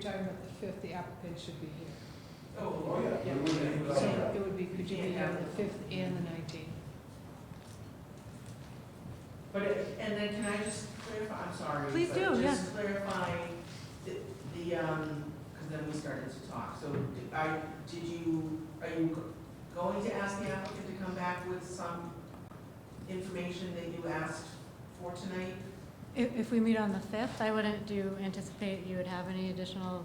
talking about the fifth, the applicant should be here. Oh, yeah. we wouldn't- So it would be, could you be here on the fifth and the nineteenth? But, it- and then can I just clarify, I'm sorry. Please but do, Just clarify the, the, um, because then we started to talk. So did I, did you, are you going to ask the applicant to come back with some information that you asked for tonight? If, if we meet on the 5th, I wouldn't, do you anticipate you would have any additional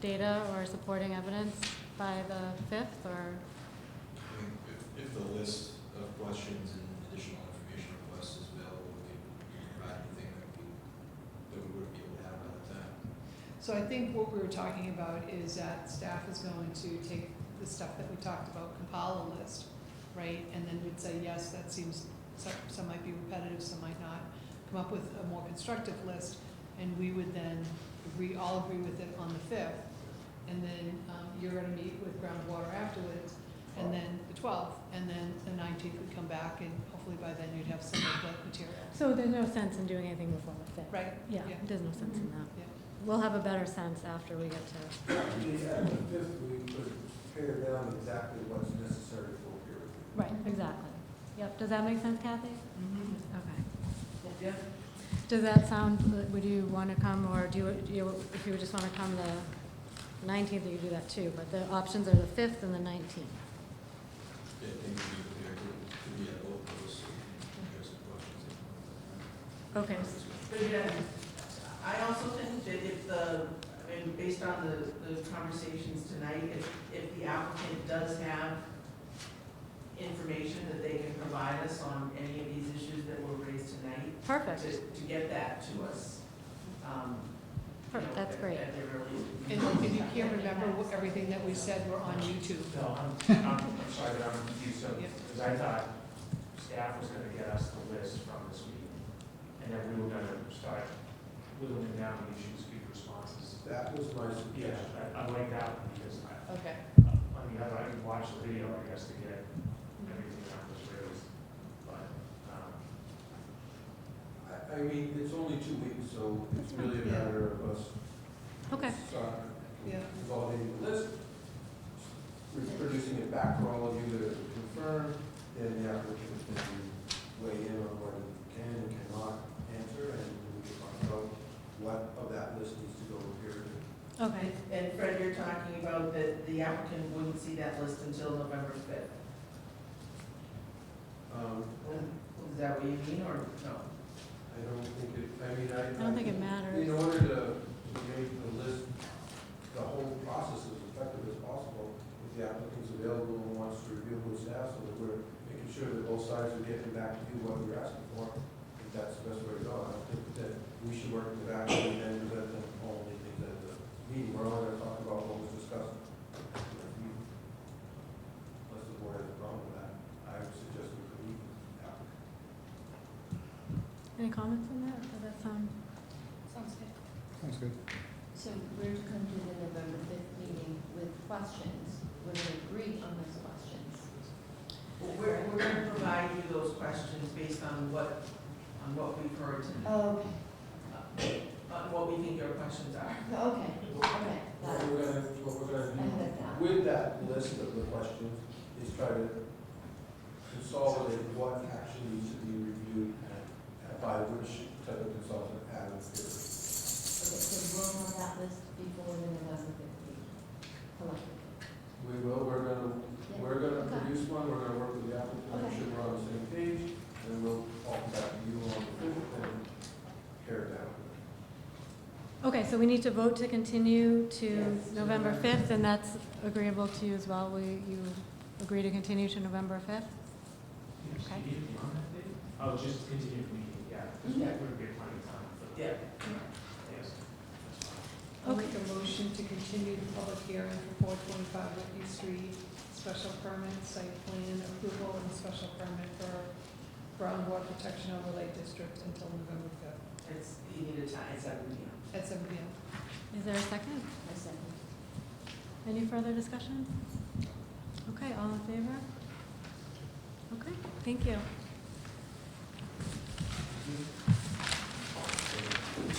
data or supporting evidence by the 5th, or? I mean, if, if the list of questions and additional information requests is available, we can we can provide anything that we, that we would be able to have by the time. So I think what we were talking about is that staff is going to take the stuff that we talked about, compile a list, right? And then we'd say, yes, that seems, some, some might be repetitive, some might not. Come up with a more constructive list, and we would then, we all agree with it on the fifth. And then, um, you're gonna meet with groundwater afterwards, and then the twelfth, and then the nineteenth would come back, and hopefully by then you'd have some of the material. So there's no sense in doing anything before the 5th? Right? Yeah, Mm-hmm. Yeah. there's no sense in that. Yeah. We'll have a better sense after we get to, Actually, at the fifth, we could pare down exactly what's necessary for peer review. right, exactly. Yep, does that make sense, Kathy? Mm-hmm. Mhm. Okay. Yeah. Does that sound, would you want to come, or do you, do you, if you just want to come the 19th, you could do that too, but the options are the 5th and the 19th. Yeah, I think we could be, able to- to be at both those, so we can address the questions. if we want. Okay. But again, I also think that if the, I mean, based on the, the conversations tonight, if, if the applicant does have information that they can provide us on any of these issues that were raised tonight, to, Perfect, to get that to us, um, you know, perfect, that's at- great. At their earliest. And and you can't remember what- everything that we said, we're on YouTube. No, I'm, I'm I'm sorry, but I'm confused, so, Yeah. because I thought staff was gonna get us the list from this meeting, and then we were gonna start whittling down the issues, give responses. That was my Yeah, suggestion. I, I like that one, because I, Okay. on the other, I can watch the video, I guess, to get everything that was raised, but, um, I, I mean, it's only two weeks, so it's really a matter of us Okay, start Yeah. consolidating the list, reproducing it back for all of you to confirm, then the applicant can weigh in on what he can and cannot answer, and we can find out what of that list needs to go to peer review. okay, And Fred, you're talking about that the applicant wouldn't see that list until November fifth. Um, Is that what you mean, or no? I don't think it, I mean, I. I don't think it In matters. order to, to make the list, the whole process as effective as possible, if the applicant's available and wants to review with staff, so that we're making sure that both sides are getting back to you what you're asking for, if that's the best way to go, I think that we should work with that, and then present them all the things at the meeting, we're all gonna talk about what was discussed. Unless the board has a problem with that, I would suggest we could meet with the applicant. Any comments on that? um, Does that sound? Sounds good. So we're to come to the November fifth meeting with questions, we're to agree on those questions. Well, We're, we're gonna provide you those questions based on what, on what we've heard tonight, Uh, Oh, on what we think your questions are. okay, okay, What we're gonna, what we're gonna do with that list of the questions is try to consolidate what actually needs to be reviewed and by which type of consultant out of here. Okay, so we'll have that list before the November fifth meeting, collectively. We will, we're gonna, we're gonna Okay. produce one, we're gonna work with the applicant, make sure we're on the same page, and then we'll talk back to you on the fifth and tear it down. Okay, so we need to vote to continue to Yes. November 5th, and that's agreeable to you as well? Will you agree to continue to November 5th? Okay. you need beyond that date? Oh, just continue the meeting, yeah, because Yeah. that would be plenty of time for, Yeah, yes. that's fine. I'll make a motion to continue the public hearing for four twenty-five Whitney Street, special permit, site plan approval, and special permit for groundwater protection overlay district until November fifth, it's, you need a time, it's at, you at seven P M. Is there a second? I second. Any further discussion? Okay, all in favor? Okay, thank you.